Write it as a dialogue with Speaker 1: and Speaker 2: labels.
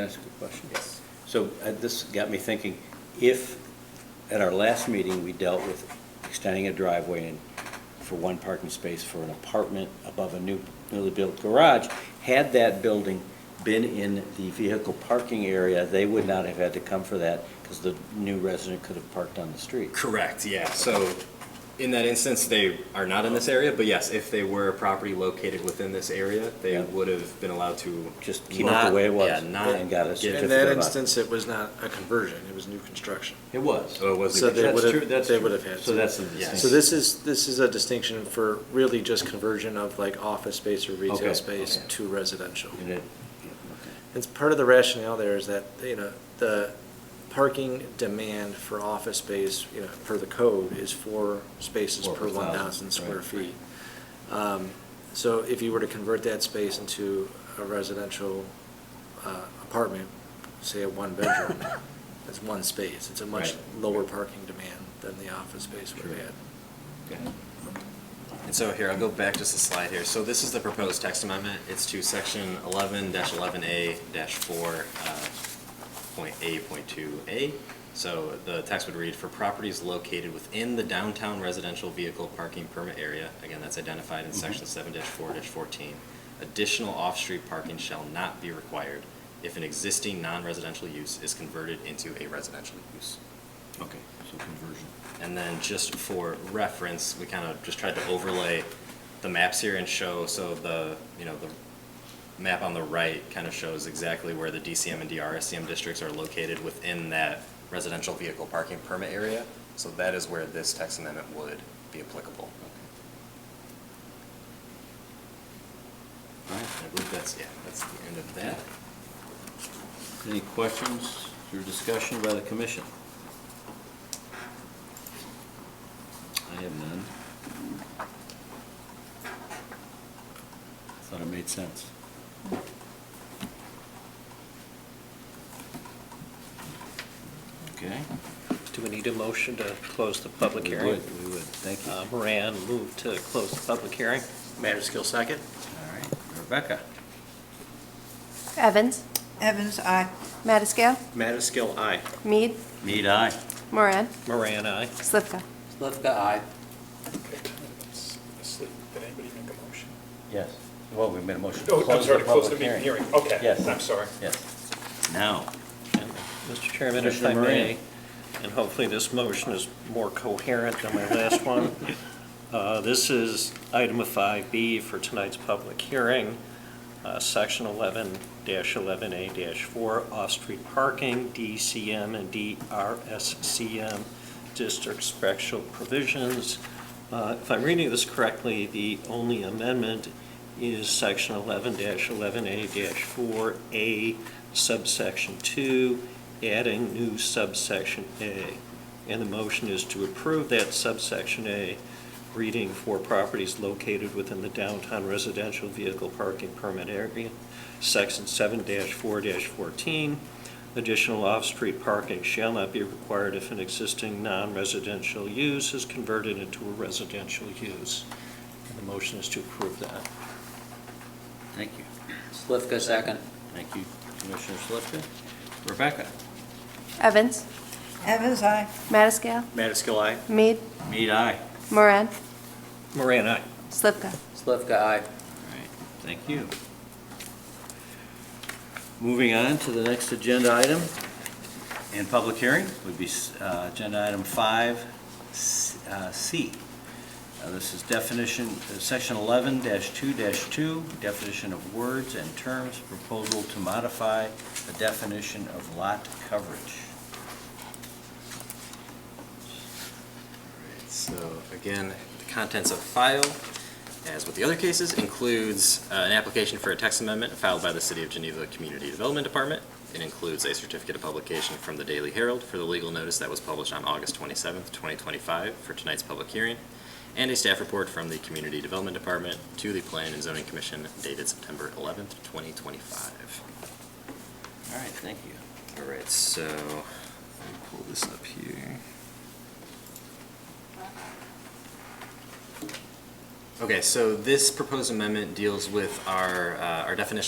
Speaker 1: Can I ask a question?
Speaker 2: Yes.
Speaker 1: So uh, this got me thinking, if at our last meeting, we dealt with extending a driveway in for one parking space for an apartment above a new, newly built garage, had that building been in the vehicle parking area, they would not have had to come for that because the new resident could have parked on the street.
Speaker 2: Correct, yeah. So in that instance, they are not in this area, but yes, if they were a property located within this area, they
Speaker 1: Yeah.
Speaker 2: would have been allowed to.
Speaker 1: Just keep it
Speaker 2: not-
Speaker 1: the way it was.
Speaker 2: Yeah, not.
Speaker 1: And got a
Speaker 2: get-
Speaker 3: In
Speaker 1: certificate
Speaker 3: that
Speaker 1: of occupancy.
Speaker 3: instance, it was not a conversion, it was new construction.
Speaker 1: It was.
Speaker 2: So it was.
Speaker 3: So they
Speaker 1: That's
Speaker 3: would
Speaker 1: true,
Speaker 3: have,
Speaker 1: that's
Speaker 3: they
Speaker 1: true.
Speaker 3: would have had.
Speaker 1: So
Speaker 3: to.
Speaker 1: that's the
Speaker 2: Yes.
Speaker 1: distinction.
Speaker 3: So this is, this is a distinction for really just conversion of like office space or
Speaker 1: Okay,
Speaker 3: retail space
Speaker 1: okay.
Speaker 3: to residential.
Speaker 1: And it-
Speaker 3: It's part of the rationale there is that, you know, the parking demand for office space, you know, per the code is four spaces
Speaker 1: Four per
Speaker 3: per one
Speaker 1: thousand,
Speaker 3: thousand square
Speaker 1: right.
Speaker 3: feet. Um, So if you were to convert that space into a residential uh, apartment, say a one-bedroom, that's one space. It's a much
Speaker 1: Right.
Speaker 3: lower parking demand than the office space would have had.
Speaker 2: Yeah. And so here, I'll go back just a slide here. So this is the proposed text amendment. It's to section eleven eleven A four, uh, point A, point two A. So the text would read, for properties located within the downtown residential vehicle parking permit area, again, that's identified in section seven four fourteen, additional off-street parking shall not be required if an existing non-residential use is converted into a residential use.
Speaker 1: Okay, so conversion.
Speaker 2: And then just for reference, we kind of just tried to overlay the maps here and show, so the, you know, the map on the right kind of shows exactly where the DCM and DRSCM districts are located within that residential vehicle parking permit area. So that is where this text amendment would be applicable. All right, I believe that's, yeah, that's the end of that.
Speaker 1: Any questions or discussion by the commission? I have none. Thought it made sense. Okay.
Speaker 4: Do we need a motion to close the public
Speaker 1: We
Speaker 4: hearing?
Speaker 1: would, we would, thank you.
Speaker 4: Uh, Moran moved to close the public hearing.
Speaker 3: Matterskill, second?
Speaker 1: All right, Rebecca?
Speaker 5: Evans,
Speaker 6: Evans, aye.
Speaker 5: Mattiscale,
Speaker 3: Matterskill, aye.
Speaker 5: Mead,
Speaker 1: Need I.
Speaker 5: Moran,
Speaker 4: Moran, aye.
Speaker 5: Slivka.
Speaker 4: Slivka, aye.
Speaker 7: Asleep, did anybody make a motion?
Speaker 1: Yes. Well, we made a motion. to
Speaker 7: Oh, I'm
Speaker 1: the
Speaker 7: sorry, to close the
Speaker 1: public
Speaker 7: meeting hearing, okay,
Speaker 1: Yes.
Speaker 7: I'm sorry.
Speaker 1: Yes. Now,
Speaker 4: Mr. Chairman, if
Speaker 1: Commissioner
Speaker 4: I
Speaker 1: Moran.
Speaker 4: may, and hopefully this motion is more coherent than my last one. Uh, This is item 5B for tonight's public hearing, uh, section 11-11A-4, off-street parking, DCM and DRSCM, district special provisions. Uh, If I'm reading this correctly, the only amendment is section 11-11A-4A subsection 2, adding new subsection A. And the motion is to approve that subsection A, reading for properties located within the downtown residential vehicle parking permit area, section seven four fourteen. Additional off-street parking shall not be required if an existing non-residential use is converted into a residential use. And the motion is to approve that.
Speaker 1: thank you.
Speaker 4: Slivka, second.
Speaker 1: Thank you, Commissioner Slifka. Rebecca?
Speaker 5: Evans,
Speaker 6: Evans, aye.
Speaker 5: Mattiscale,
Speaker 3: Matterskill, aye.
Speaker 5: Mead,
Speaker 1: Mead, aye.
Speaker 5: Moran,
Speaker 4: Moran, aye.
Speaker 5: Slivka.
Speaker 4: Slivka, aye.
Speaker 1: All right, thank you. Moving on to the next agenda item and public hearing would be uh, Agenda Item 5C. Uh, This is definition, uh, Section 11-2-2, definition of words and terms, proposal to modify the definition of lot coverage.
Speaker 2: So again, the contents of file, as with the other cases, includes uh, an application for a text amendment filed by the City of Geneva Community Development Department. It includes a certificate of publication from the Daily Herald for the legal notice that was published on August 27th, 2025 for tonight's public hearing, and a staff report from the Community Development Department to the Plan and Zoning Commission dated September 11th, 2025.
Speaker 1: All right, thank you.
Speaker 2: All right, so let me pull this up here. Okay, so this proposed amendment deals with our, uh, our definition